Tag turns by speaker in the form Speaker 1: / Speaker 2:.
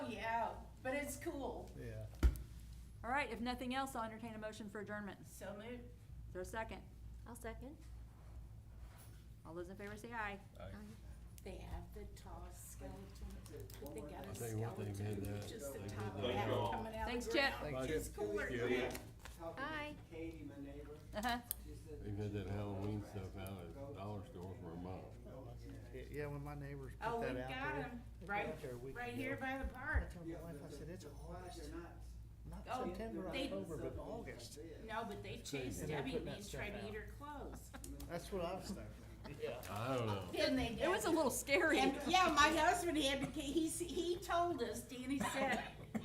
Speaker 1: cool.
Speaker 2: Yeah.
Speaker 3: All right, if nothing else, I'll entertain a motion for adjournment. Is
Speaker 1: So moved.
Speaker 3: there a second?
Speaker 4: I'll second.
Speaker 3: All those in favor say aye.
Speaker 1: They have the tall skeleton. They got
Speaker 5: I'll
Speaker 1: a
Speaker 5: tell you one thing, they
Speaker 1: skeleton,
Speaker 5: did
Speaker 1: with
Speaker 5: that.
Speaker 1: just the
Speaker 5: They did
Speaker 1: top half
Speaker 5: that. Thank you all.
Speaker 1: coming out.
Speaker 3: Thanks,
Speaker 1: the
Speaker 3: Chip.
Speaker 1: ground.
Speaker 2: Thank
Speaker 1: It's cooler.
Speaker 2: Yeah.
Speaker 6: Talking
Speaker 4: Aye.
Speaker 6: to Katie, my neighbor,
Speaker 3: Uh-huh.
Speaker 6: she said.
Speaker 5: They've had that Halloween stuff out
Speaker 6: Go.
Speaker 5: at dollar store for a month.
Speaker 2: Yeah, Yeah, when my neighbors
Speaker 1: Oh,
Speaker 2: put
Speaker 1: we got
Speaker 2: that out there.
Speaker 1: them,
Speaker 2: put it
Speaker 1: right,
Speaker 2: out there a week
Speaker 1: right
Speaker 2: ago,
Speaker 1: here by the
Speaker 2: I
Speaker 1: park.
Speaker 2: told
Speaker 6: Yeah,
Speaker 2: my
Speaker 6: but
Speaker 2: wife, I
Speaker 6: the-
Speaker 2: said, it's
Speaker 6: the
Speaker 2: August,
Speaker 6: flies are not-
Speaker 2: not
Speaker 1: Oh,
Speaker 2: September,
Speaker 1: they-
Speaker 2: October,
Speaker 6: Something
Speaker 2: but
Speaker 6: like
Speaker 2: August.
Speaker 6: this.
Speaker 1: No, but they chased
Speaker 2: And they're
Speaker 1: Debbie
Speaker 2: putting
Speaker 1: and
Speaker 2: that
Speaker 1: me
Speaker 2: stuff
Speaker 1: trying to
Speaker 2: out.
Speaker 1: eat her clothes.
Speaker 2: That's what I was thinking. Yeah.
Speaker 5: I don't know.
Speaker 1: Then they did.
Speaker 3: It was a little scary.
Speaker 1: And, yeah, my husband had to, he, he told us, Danny said,